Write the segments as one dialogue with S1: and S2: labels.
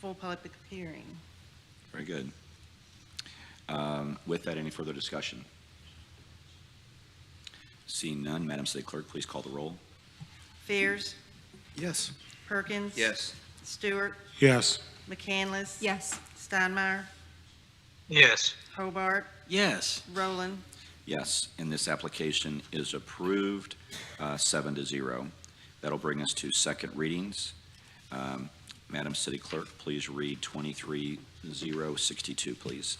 S1: full public hearing.
S2: Very good. Um, With that, any further discussion? Seeing none, Madam City Clerk, please call the roll.
S1: Fears,
S3: Yes.
S1: Perkins. Stewart,
S3: Yes.
S1: McCandless.
S4: Yes.
S1: Steinmeier,
S5: Yes.
S1: Hobart,
S3: Yes.
S1: Roland,
S2: Yes, and this application is approved, uh, seven to zero. That'll bring us to second readings. Um, Madam City Clerk, please read 23-062, please.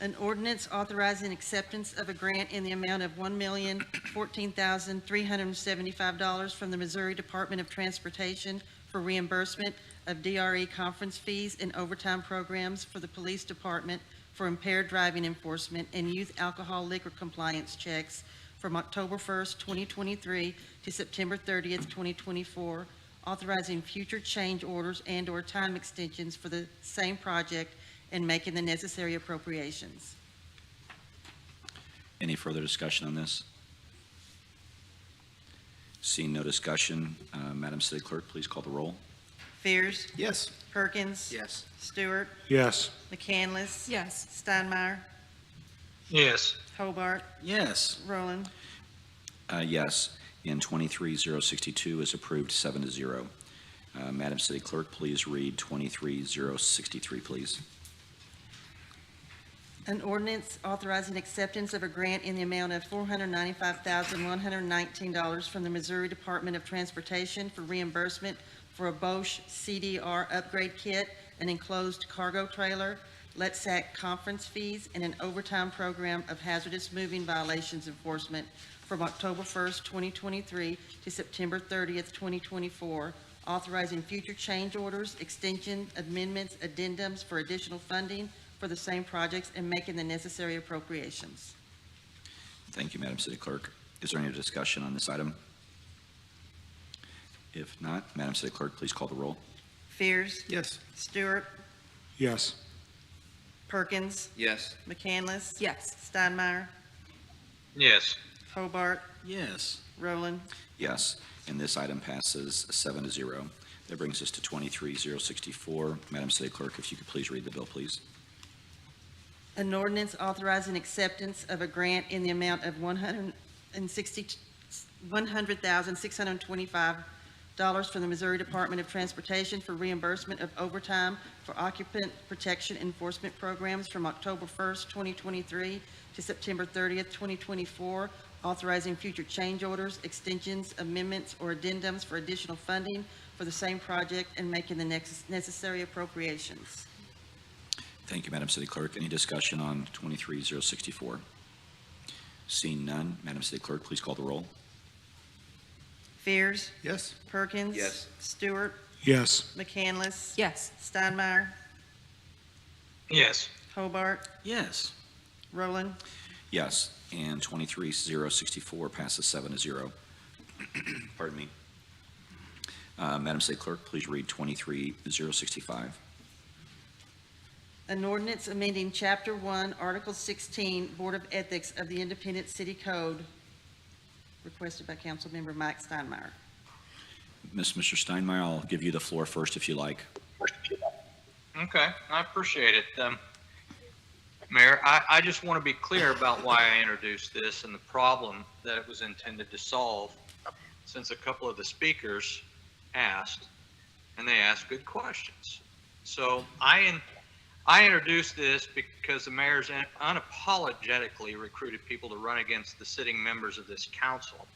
S1: An ordinance authorizing acceptance of a grant in the amount of one million fourteen thousand three hundred and seventy-five dollars from the Missouri Department of Transportation for reimbursement of DRE conference fees and overtime programs for the Police Department for impaired driving enforcement and youth alcohol liquor compliance checks from October first, twenty twenty-three to September thirtieth, twenty twenty-four, authorizing future change orders and/or time extensions for the same project and making the necessary appropriations.
S2: Any further discussion on this? Seeing no discussion, uh, Madam City Clerk, please call the roll.
S1: Fears,
S3: Yes.
S1: Perkins.
S3: Yes.
S1: Stewart,
S3: Yes.
S1: McCandless.
S4: Yes.
S1: Steinmeier,
S5: Yes.
S1: Hobart,
S3: Yes.
S1: Roland.
S2: Uh, Yes, and 23-062 is approved, seven to zero. Uh, Madam City Clerk, please read 23-063, please.
S1: An ordinance authorizing acceptance of a grant in the amount of four hundred ninety-five thousand, one hundred nineteen dollars from the Missouri Department of Transportation for reimbursement for a Bosch CDR upgrade kit, an enclosed cargo trailer, E LETSAC conference fees, and an overtime program of hazardous moving violations enforcement from October first, twenty twenty-three to September thirtieth, twenty twenty-four, authorizing future change orders, extension, amendments, addendums for additional funding for the same projects and making the necessary appropriations.
S2: Thank you, Madam City Clerk. Is there any discussion on this item? If not, Madam City Clerk, please call the roll.
S1: Fears,
S3: Yes.
S1: Stewart,
S3: Yes.
S1: Perkins,
S3: Yes.
S1: McCandless,
S4: Yes.
S1: Steinmeier,
S5: Yes.
S1: Hobart,
S3: Yes.
S1: Roland,
S2: Yes, and this item passes seven to zero. That brings us to 23-064. Madam City Clerk, if you could please read the bill, please.
S1: An ordinance authorizing acceptance of a grant in the amount of one hundred and sixty, one hundred thousand, six hundred and twenty-five dollars from the Missouri Department of Transportation for reimbursement of overtime for occupant protection enforcement programs from October first, twenty twenty-three to September thirtieth, twenty twenty-four, authorizing future change orders, extensions, amendments, or addendums for additional funding for the same project and making the next, necessary appropriations.
S2: Thank you, Madam City Clerk. Any discussion on 23-064? Seeing none, Madam City Clerk, please call the roll.
S1: Fears?
S3: Yes.
S1: Perkins.
S3: Yes.
S1: Stewart.
S3: Yes.
S1: McCandless.
S4: Yes.
S1: Steinmeier.
S5: Yes.
S1: Hobart.
S3: Yes.
S1: Roland.
S2: Yes, and 23-064 passes seven to zero. Pardon me. Uh, Madam City Clerk, please read 23-065.
S1: An ordinance amending Chapter 1, Article 16, Board of Ethics of the Independent City Code, requested by Councilmember Mike Steinmeier.
S2: Miss, Mr. Steinmeier, I'll give you the floor first if you like.
S5: Okay, I appreciate it. Um, Mayor, I, I just want to be clear about why I introduced this and the problem that it was intended to solve, since a couple of the speakers asked, and they asked good questions. So I, in- I introduced this because the mayor's un- unapologetically recruited people to run against the sitting members of this council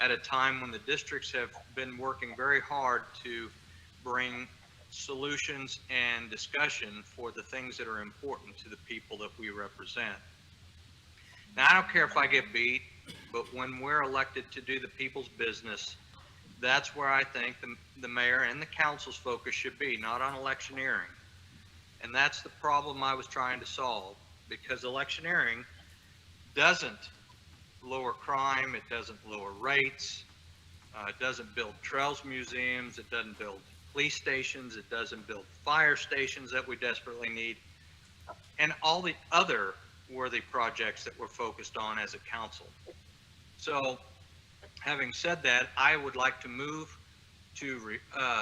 S5: at a time when the districts have been working very hard to bring solutions and discussion for the things that are important to the people that we represent. Now, I don't care if I get beat, but when we're elected to do the people's business, that's where I think the, the mayor and the council's focus should be, not on electioneering. And that's the problem I was trying to solve, because electioneering doesn't lower crime, it doesn't lower rates, uh, it doesn't build trails museums, it doesn't build police stations, it doesn't build fire stations that we desperately need, and all the other worthy projects that we're focused on as a council. So, having said that, I would like to move to, re- uh,